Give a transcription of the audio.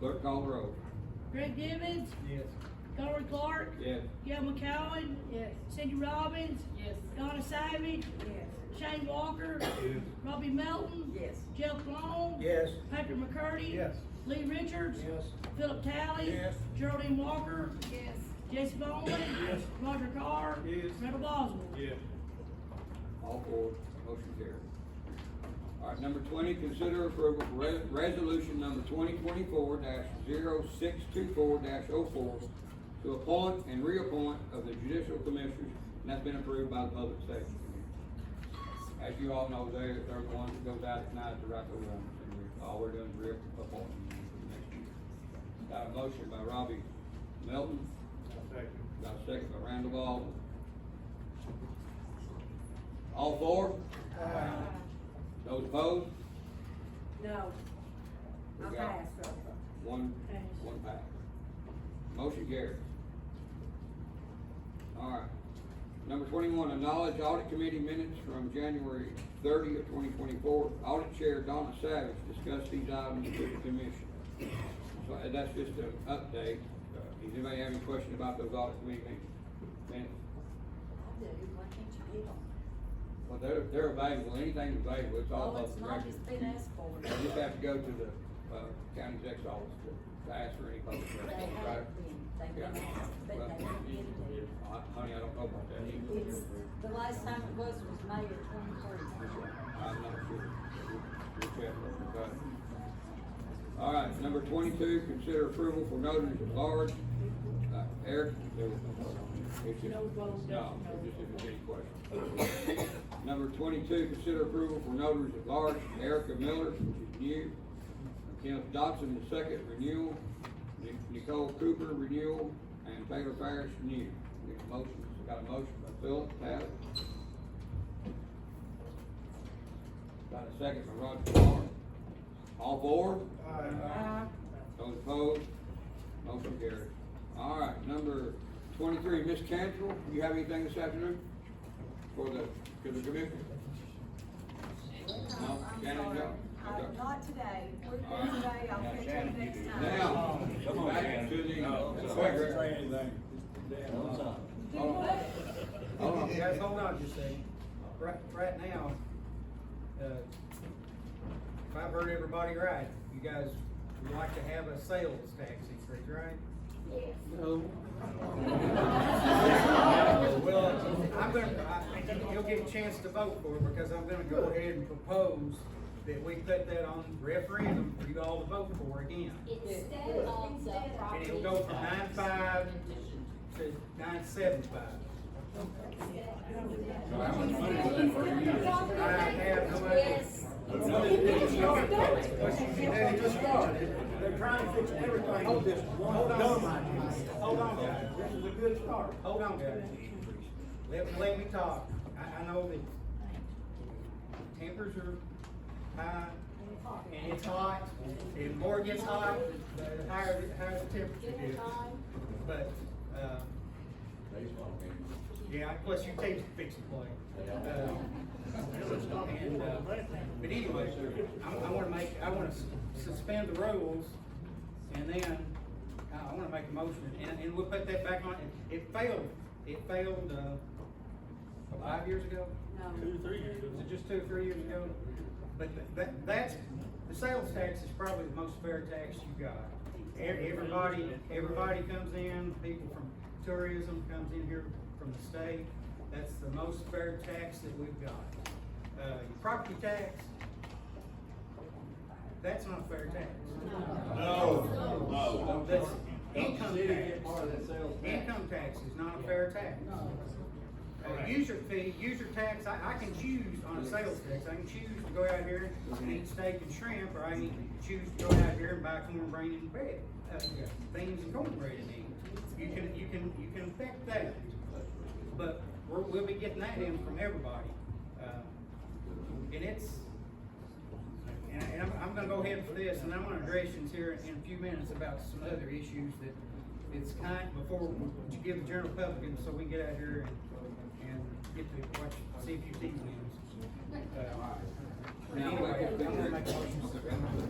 Clerk call the roll. Greg Nivens, Yes. Darwin Clark, Yes. Gil McCowen, Yes. Cindy Robbins, Yes. Donna Savage, Yes. Shane Walker, Yes. Robbie Melton, Yes. Jeff Long, Yes. Patrick McCurdy, Yes. Lee Richards, Yes. Philip Talley, Yes. Geraldine Walker, Yes. Jesse Bowman, Yes. Roger Carr, Yes. Randall Boswell. Yes. All four, motion carried. All right, number twenty, consider approval for res- resolution number twenty twenty-four 624 4 oh to appoint and reappoint of the judicial commissioners, and that's been approved by the public safety committee. As you all know, they, they're the ones that goes out tonight to write the warrants, and we- all we're doing is reappointing them for next year. Got a motion by Robbie Melton, got a second by Randall Baldwin. All four? Those opposed? No. We I'm got passed, so. One, Pass. one pass. Motion carried. All right. Number twenty-one, acknowledge audit committee minutes from January thirty of twenty twenty-four. Audit Chair Donna Savage discussed these items with the commission. So uh, that's just an update. Uh, Does anybody have any question about those audit committee meetings? minutes? I do, why can't you get them? Well, they're, they're available, anything available, it's all Oh, up it's to not, it's been asked for. You just have to go to the, uh, county exec's office to, to ask for any public They records, right? have been, they've been asked, but Well, they haven't been there. I- Honey, I don't know about that either. It's, the last time it was, was May of twenty-three. I'm not sure. We'll check on that. All right, number twenty-two, consider approval for notaries at large. Uh, Eric? there was no vote on it. It's just- No vote, No, no. just if there's any questions. Number twenty-two, consider approval for notaries at large, Erica Miller, which is new. Kenneth Dodson, the second renewal. Nic- Nicole Cooper, renewal, and Taylor Parrish, new. Need a motion, got a motion by Philip, Pat? Got a second by Roger Carr. All four? Aye. Those opposed? Motion carried. All right, number twenty-three, Ms. Cantrell, you have anything this afternoon for the, for the commission? No, No, I'm Shannon, sorry. no. Uh, Okay. Not today. We're All right. good today. I'll catch you next time. Now, Come on, back to the. Shannon. No, it's all Quick, right. Rick. Do Hold on. what? Hold on. Guys, hold on just a second. Right, right now, uh, if I've heard everybody right, you guys would like to have a sales tax increase, right? No. Well, I'm gonna, I, you'll get a chance to vote for it because I'm gonna go ahead and propose that we put that on referendum for you all to vote for again. Instead of the And property. it'll go from nine five to nine seven five. So how much money was that for you? I have no idea. Yes. They're trying to fix everything. Hold this, hold on. Hold on, guys. This is a good start. Hold on, guys. Let, let me talk. I, I know that tempers are high, and it's hot, and the more it gets hot, the higher, the higher the temperature is. But, uh, yeah, plus you take fix the play. Uh, and, uh, But anyway, I, I wanna make, I wanna s- suspend the rules, and then, uh, I, I wanna make a motion, and, and we'll put that back on, It- it failed, it failed, uh, five years ago? No. Was it just two or three years ago? But th- that, that's, the sales tax is probably the most fair tax you got. E- Everybody, everybody comes in, people from tourism comes in here from the state. That's the most fair tax that we've got. Uh, your property tax, that's not fair tax. No, That's no. income tax. Income tax is not a fair tax. Uh, user fee, user tax, I, I can choose on a sales tax, I can choose to go out here and eat steak and shrimp, or I can choose to go out here and buy cornbread and bread, uh, things and cornbread and eat. You can, you can, you can affect that, but we're, we'll be getting that in from everybody. Uh, And it's, and, and I'm, I'm gonna go ahead for this, and I'm gonna address you here in a few minutes about some other issues that it's kind, before you give the general public, and so we can get out here and, and get to watch, see if you see news. Uh, Now, Anyway, I'm gonna make a motion.